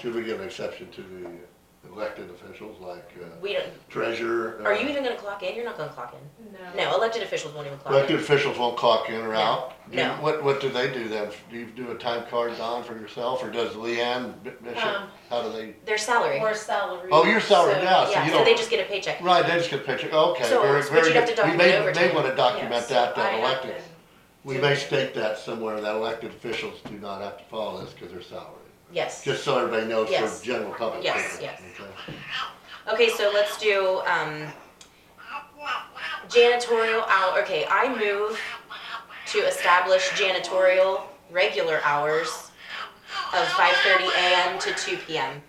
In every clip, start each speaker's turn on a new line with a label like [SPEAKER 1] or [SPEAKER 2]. [SPEAKER 1] Should we give an exception to the elected officials like uh,
[SPEAKER 2] We don't,
[SPEAKER 1] treasurer?
[SPEAKER 2] are
[SPEAKER 1] uh,
[SPEAKER 2] you even gonna clock in? You're not gonna clock in.
[SPEAKER 3] No.
[SPEAKER 2] No, elected officials won't even clock
[SPEAKER 1] Uh, Elected
[SPEAKER 2] in.
[SPEAKER 1] officials won't clock in or
[SPEAKER 2] No,
[SPEAKER 1] out? Do you-
[SPEAKER 2] no.
[SPEAKER 1] What, what do they do then? Do you do a time card on for yourself or does Leanne B- Bishop,
[SPEAKER 3] Um,
[SPEAKER 1] how do they?
[SPEAKER 2] Their salary.
[SPEAKER 3] Or salary.
[SPEAKER 1] Oh, you're salaried
[SPEAKER 3] so-
[SPEAKER 1] now, so
[SPEAKER 2] Yeah,
[SPEAKER 1] you
[SPEAKER 2] so they
[SPEAKER 1] don't,
[SPEAKER 2] just get a paycheck.
[SPEAKER 1] right, they just get a picture, okay,
[SPEAKER 2] So,
[SPEAKER 1] very,
[SPEAKER 2] but
[SPEAKER 1] very
[SPEAKER 2] you'd have to
[SPEAKER 1] good. We
[SPEAKER 2] document
[SPEAKER 1] may,
[SPEAKER 2] overtime.
[SPEAKER 1] may wanna document
[SPEAKER 3] Yes,
[SPEAKER 1] that, that
[SPEAKER 3] I
[SPEAKER 1] elected,
[SPEAKER 3] have
[SPEAKER 1] we may state that somewhere, that elected officials do not have to follow this because they're salaried.
[SPEAKER 2] Yes.
[SPEAKER 1] Just so everybody knows
[SPEAKER 2] Yes.
[SPEAKER 1] for general public.
[SPEAKER 2] Yes,
[SPEAKER 1] purpose,
[SPEAKER 2] yes.
[SPEAKER 1] okay?
[SPEAKER 2] Okay, so let's do, um, janitorial hour, okay, I move to establish janitorial regular hours of five thirty AM to two PM.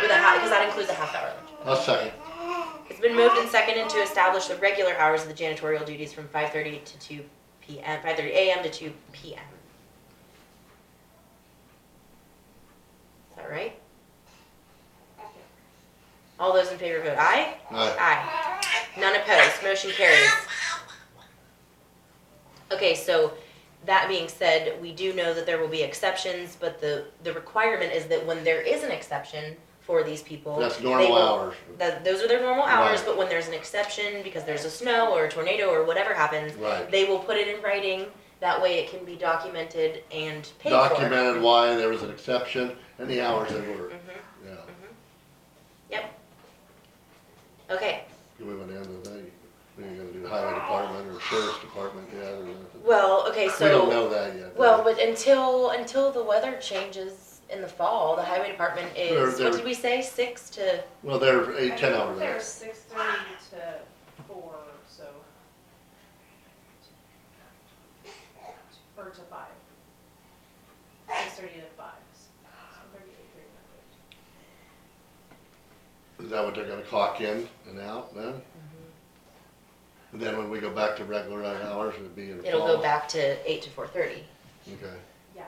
[SPEAKER 2] With a half, cause that includes a half hour.
[SPEAKER 1] I'll second.
[SPEAKER 2] It's been moved and seconded to establish the regular hours of the janitorial duties from five thirty to two PM, five thirty AM to two PM. Is that right? All those in favor vote aye?
[SPEAKER 1] Aye.
[SPEAKER 2] Aye. None opposed, motion carries. Okay, so that being said, we do know that there will be exceptions, but the, the requirement is that when there is an exception for these people.
[SPEAKER 1] That's
[SPEAKER 2] they
[SPEAKER 1] normal
[SPEAKER 2] will-
[SPEAKER 1] hours.
[SPEAKER 2] that, those are their normal hours,
[SPEAKER 1] Right.
[SPEAKER 2] but when there's an exception because there's a snow or a tornado or whatever happens,
[SPEAKER 1] Right.
[SPEAKER 2] they will put it in writing. That way it can be documented and paid
[SPEAKER 1] Documented why there was an exception and the hours they
[SPEAKER 2] for.
[SPEAKER 1] were,
[SPEAKER 2] Mhm.
[SPEAKER 1] yeah.
[SPEAKER 2] Okay,
[SPEAKER 1] Do we want to end with that? We're gonna do highway department or sheriff's department, yeah, or nothing.
[SPEAKER 2] well, okay,
[SPEAKER 1] We don't
[SPEAKER 2] so,
[SPEAKER 1] know that yet. do
[SPEAKER 2] well,
[SPEAKER 1] we?
[SPEAKER 2] but until, until the weather changes in the fall, the highway department is,
[SPEAKER 1] They're-
[SPEAKER 2] what
[SPEAKER 1] they're-
[SPEAKER 2] did we say, six to,
[SPEAKER 1] Well, they're
[SPEAKER 3] I
[SPEAKER 1] eight, ten
[SPEAKER 3] think
[SPEAKER 1] hour
[SPEAKER 3] They're
[SPEAKER 1] days.
[SPEAKER 3] six thirty to four, so. Or to five. Six thirty to five. So 30 to 300.
[SPEAKER 1] Is that what they're gonna clock in and out
[SPEAKER 2] Mm-hmm.
[SPEAKER 1] then? And then when we go back to regular hours, it'd be in the
[SPEAKER 2] it'll
[SPEAKER 1] fall?
[SPEAKER 2] go back to eight to four thirty.
[SPEAKER 1] Okay.
[SPEAKER 3] Yeah,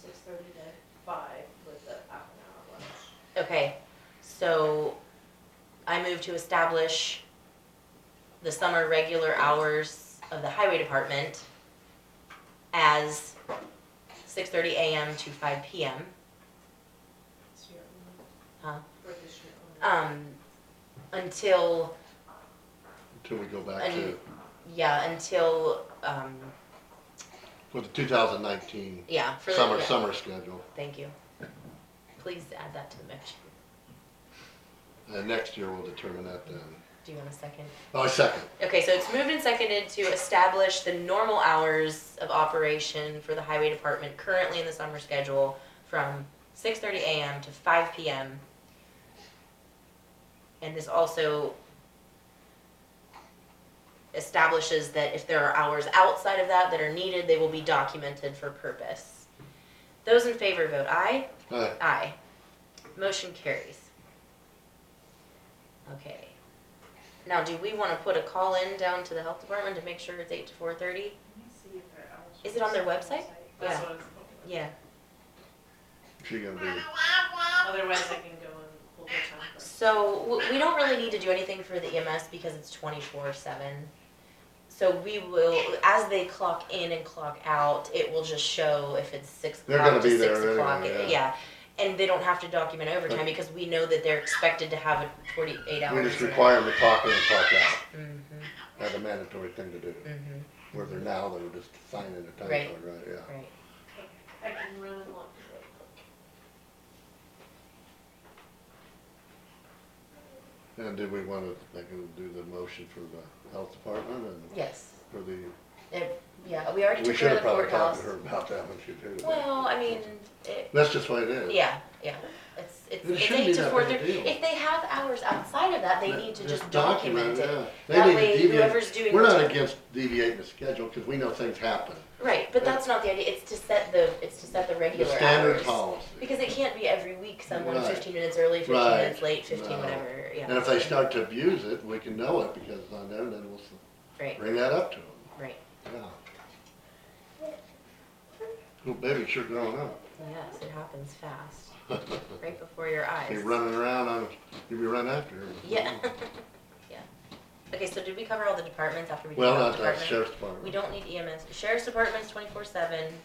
[SPEAKER 3] six thirty to five with the half an hour lunch.
[SPEAKER 2] Okay, so I move to establish the summer regular hours of the highway department as six thirty AM to five PM.
[SPEAKER 3] It's your own-
[SPEAKER 2] Huh.
[SPEAKER 3] for this year only.
[SPEAKER 2] Um, until,
[SPEAKER 1] Until we go back to,
[SPEAKER 2] And- yeah, until, um,
[SPEAKER 1] with the two thousand nineteen
[SPEAKER 2] yeah, for the.
[SPEAKER 1] summer,
[SPEAKER 2] yeah,
[SPEAKER 1] summer schedule.
[SPEAKER 2] Thank you. Please add that to the motion.
[SPEAKER 1] And next year we'll determine that then.
[SPEAKER 2] Do you want a second?
[SPEAKER 1] Oh, second.
[SPEAKER 2] Okay, so it's moved and seconded to establish the normal hours of operation for the highway department currently in the summer schedule from six thirty AM to five PM. And this also establishes that if there are hours outside of that that are needed, they will be documented for purpose. Those in favor vote aye.
[SPEAKER 1] Uh,
[SPEAKER 2] Aye. Motion carries. Okay. Now, do we wanna put a call in down to the health department to make sure it's eight to four thirty?
[SPEAKER 3] Let me see if they're eligible.
[SPEAKER 2] Is it on their website?
[SPEAKER 3] That's
[SPEAKER 2] Yeah.
[SPEAKER 3] what I was looking
[SPEAKER 2] Yeah.
[SPEAKER 1] she gonna be.
[SPEAKER 3] at. Otherwise I can go and pull the time. card.
[SPEAKER 2] So, w- we don't really need to do anything for the EMS because it's twenty-four seven. So we will, as they clock in and clock out, it will just show if it's six
[SPEAKER 1] They're
[SPEAKER 2] o'clock
[SPEAKER 1] gonna
[SPEAKER 2] to
[SPEAKER 1] be
[SPEAKER 2] six
[SPEAKER 1] there
[SPEAKER 2] o'clock,
[SPEAKER 1] anyway,
[SPEAKER 2] yeah. And they don't have to document overtime because we know that they're expected to have a forty-eight hours.
[SPEAKER 1] We just require them to clock in and clock out.
[SPEAKER 2] Mm-hmm,
[SPEAKER 1] That's a mandatory thing to do.
[SPEAKER 2] mm-hmm.
[SPEAKER 1] Where they're now, they're just signing a time
[SPEAKER 2] Right.
[SPEAKER 1] card, right, yeah.
[SPEAKER 2] Right.
[SPEAKER 3] I can run and look.
[SPEAKER 1] And did we want to, like, do the motion for the health department and
[SPEAKER 2] Yes.
[SPEAKER 1] for the,
[SPEAKER 2] It, yeah, we already
[SPEAKER 1] we
[SPEAKER 2] took
[SPEAKER 1] should
[SPEAKER 2] care
[SPEAKER 1] have
[SPEAKER 2] of the
[SPEAKER 1] probably talked
[SPEAKER 2] courthouse.
[SPEAKER 1] to her about that when she did it.
[SPEAKER 2] Well, I mean, it,
[SPEAKER 1] That's just what it is.
[SPEAKER 2] yeah, yeah. It's, it's,
[SPEAKER 1] It
[SPEAKER 2] it's
[SPEAKER 1] shouldn't
[SPEAKER 2] eight
[SPEAKER 1] be
[SPEAKER 2] to
[SPEAKER 1] that
[SPEAKER 2] four
[SPEAKER 1] big a
[SPEAKER 2] thirty.
[SPEAKER 1] deal.
[SPEAKER 2] If they have hours outside of that, they need to just document it.
[SPEAKER 1] yeah. They
[SPEAKER 2] That
[SPEAKER 1] need to
[SPEAKER 2] way
[SPEAKER 1] deviate.
[SPEAKER 2] whoever's doing
[SPEAKER 1] We're
[SPEAKER 2] the
[SPEAKER 1] not
[SPEAKER 2] time-
[SPEAKER 1] against deviating the schedule because we know things happen.
[SPEAKER 2] Right, but that's not the idea. It's to set the, it's to set the
[SPEAKER 1] The
[SPEAKER 2] regular
[SPEAKER 1] standard
[SPEAKER 2] hours.
[SPEAKER 1] policy.
[SPEAKER 2] Because it can't be every week someone
[SPEAKER 1] Right.
[SPEAKER 2] fifteen minutes early, fifteen
[SPEAKER 1] Right.
[SPEAKER 2] minutes late,
[SPEAKER 1] No.
[SPEAKER 2] fifteen whatever, yeah.
[SPEAKER 1] And if they start to abuse it, we can know it because it's on there and then we'll s-
[SPEAKER 2] Right,
[SPEAKER 1] bring that up to them.
[SPEAKER 2] right,
[SPEAKER 1] Yeah. Little baby sure growing up.
[SPEAKER 2] yes, it happens fast, right before your eyes.
[SPEAKER 1] Be running around on, you be running after her.
[SPEAKER 2] Yeah, yeah. Okay, so did we cover all the departments after we did
[SPEAKER 1] Well,
[SPEAKER 2] health
[SPEAKER 1] that's
[SPEAKER 2] department? E
[SPEAKER 1] the sheriff's department.
[SPEAKER 2] We don't need EMS, sheriff's department's twenty-four seven,